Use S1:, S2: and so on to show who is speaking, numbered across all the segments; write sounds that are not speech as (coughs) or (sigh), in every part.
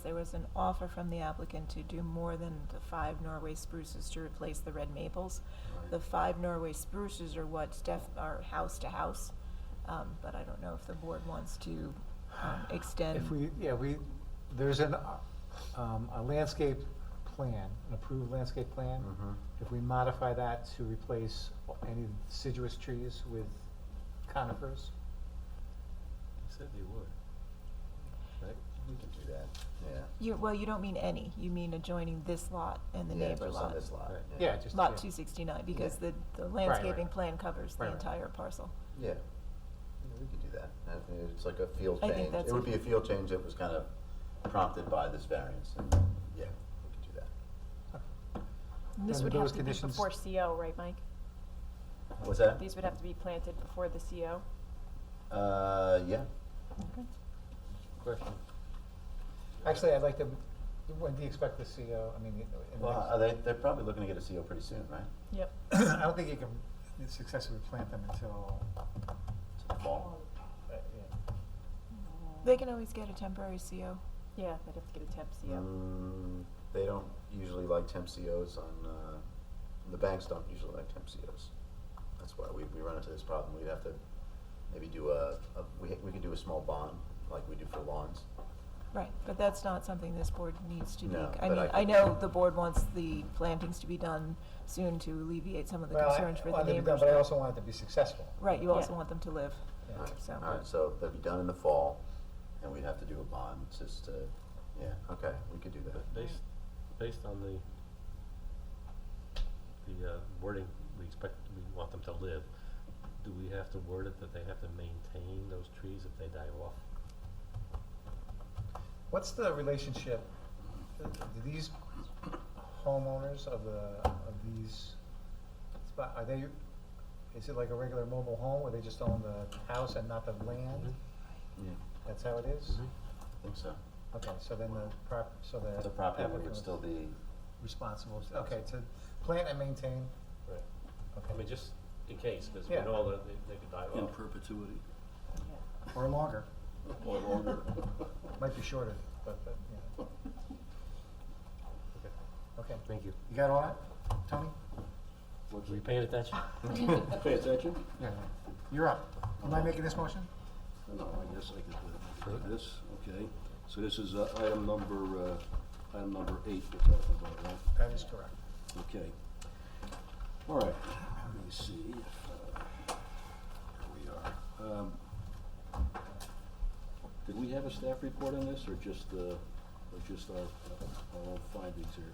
S1: there was an offer from the applicant to do more than the five Norway spruces to replace the red maples. The five Norway spruces are what's def, are house to house, um, but I don't know if the board wants to,
S2: (sighs)
S1: um, extend.
S2: If we, yeah, we, there's an, uh, um, a landscape plan, an approved landscape plan.
S3: Mm-hmm.
S4: Mhm.
S2: If we modify that to replace any deciduous trees with conifers,
S4: He said they would. Right? We could do that, yeah.
S1: You, well, you don't mean any, you mean adjoining this lot and the
S3: Yeah,
S1: neighbor
S3: just on
S1: lot.
S3: this lot,
S4: Right.
S2: yeah, just.
S1: Lot
S2: yeah.
S1: two sixty-nine, because
S3: Yeah.
S1: the, the landscaping plan covers the
S2: Right, right.
S1: entire parcel.
S3: Yeah, Yeah, we could do that. I think It's like a field
S1: I think
S3: change.
S1: that's
S3: It would
S1: a-
S3: be a field change that was kind of prompted by this variance. and, Yeah, we could do that.
S5: And This
S2: Under
S5: would have
S2: those
S5: to be
S2: conditions-
S5: before
S1: oh,
S5: CO, right, Mike?
S3: What's that?
S5: These would have to be planted before the CO.
S3: Uh, yeah.
S4: Question.
S2: Actually, I'd like to, when do you expect the CO, I mean, in the
S3: Well,
S2: next-
S3: are they, they're probably looking to get a CO pretty soon, right?
S5: Yep.
S2: (coughs) I don't think you can successfully plant them until,
S3: To the fall?
S2: uh, yeah.
S1: They can always get a temporary CO.
S5: Yeah, they'd have to get a temp CO.
S3: Mm, They don't usually like temp COs on, uh, the banks don't usually like temp COs. That's why we, we run into this problem. We'd have to maybe do a, a- we, we could do a small bond, like we do for lawns.
S1: Right, but that's not something this board needs to be.
S3: No,
S1: I
S3: but
S1: mean,
S3: I
S1: I
S3: think-
S1: know the board wants the plantings to be done soon to alleviate some of the
S2: Well, I-
S1: concerns for the
S2: wanted to be done,
S1: neighbors.
S2: But I also want it to be successful.
S1: Right, you also
S5: Yeah.
S1: want them to live,
S2: Yeah.
S3: Alright,
S1: so.
S3: Alright, so they'll be done in the fall, and we'd have to do a bond, just to, yeah, okay, we could do
S4: But
S3: that.
S4: based, based on the, the uh, wording, we expect, we want them to live, do we have to word it that they have to maintain those trees if they die off?
S2: What's the relationship, uh, do these homeowners of the, of these, spot- are they, is it like a regular mobile home where they just own the house and not the land?
S3: Mm-hmm. Yeah,
S2: That's how it is?
S3: I think so.
S2: Okay, so then the prop, so the.
S3: Mm-hmm. The property owner
S2: applicant
S3: would
S2: was
S3: still be,
S2: Responsible, okay, to plant and maintain,
S4: Right. I mean,
S2: okay,
S4: just in case, because we
S2: Yeah.
S4: know that they, they could die
S6: In
S4: off.
S6: perpetuity.
S2: or longer,
S6: Or longer.
S2: (laughs) might be shorter, but, but, yeah,
S4: Okay.
S2: okay.
S4: Thank you.
S2: You got all that, Tony?
S4: Were you paying attention?
S6: Pay attention?
S2: Yeah. You're up. Am I making this motion?
S6: No, I guess I could uh, do this, okay. So this is uh, item number, uh, item number eight we're talking about, right?
S2: That is correct.
S6: Okay. All right, let me see if, uh, here we are. Um, Did we have a staff report on this, or just, uh, or just our, our own findings here?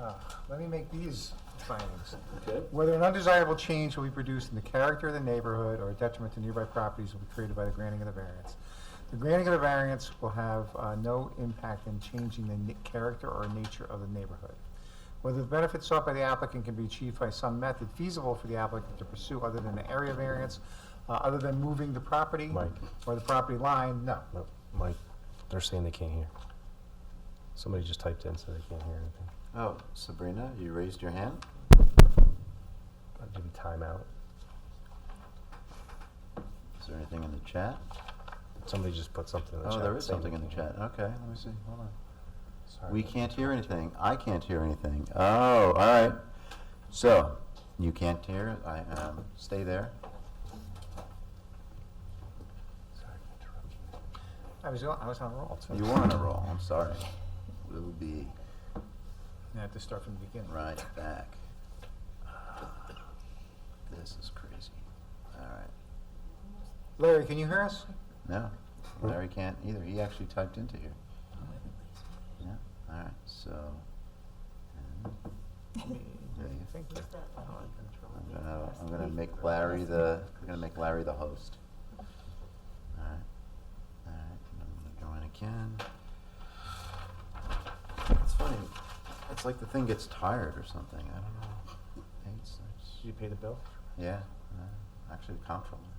S2: Uh, Let me make these findings.
S6: Okay?
S2: Whether an undesirable change will be produced in the character of the neighborhood or a detriment to nearby properties will be created by the granting of the variance. The granting of the variance will have uh, no impact in changing the ni- character or nature of the neighborhood. Whether the benefits sought by the applicant can be achieved by some method feasible for the applicant to pursue other than the area variance, uh, other than moving the property
S7: Mike.
S2: or the property line, no.
S7: No, Mike, they're saying they can't hear. Somebody just typed in, so they can't hear anything.
S3: oh, Sabrina, you raised your hand?
S7: I'll give you timeout.
S3: Is there anything in the chat?
S7: Somebody just put something in the
S3: Oh,
S7: chat.
S3: there is
S7: saying they
S3: something in the
S7: can't
S3: chat, okay, let me see, hold on.
S7: hear. Sorry.
S3: We can't hear anything, I can't hear anything, oh, alright. So, you can't hear, I, um, stay there.
S7: Sorry to interrupt you.
S2: I was, on- I was on a roll.
S3: You were on a roll, I'm sorry. We'll be
S2: I have to start from the beginning.
S3: right back. Ah, This is crazy, alright.
S2: Larry, can you hear us?
S3: No, Larry can't either. He actually typed into here. Yeah, all right, so. and there you go.
S2: Thank you.
S3: I'm gonna, I'm gonna make Larry the, I'm gonna make Larry the host. All right, all right, I'm gonna join again. It's funny, it's like the thing gets tired or something, I don't know. It's- it's-
S2: Did you pay the bill?
S3: Yeah, uh, actually, the comptroller.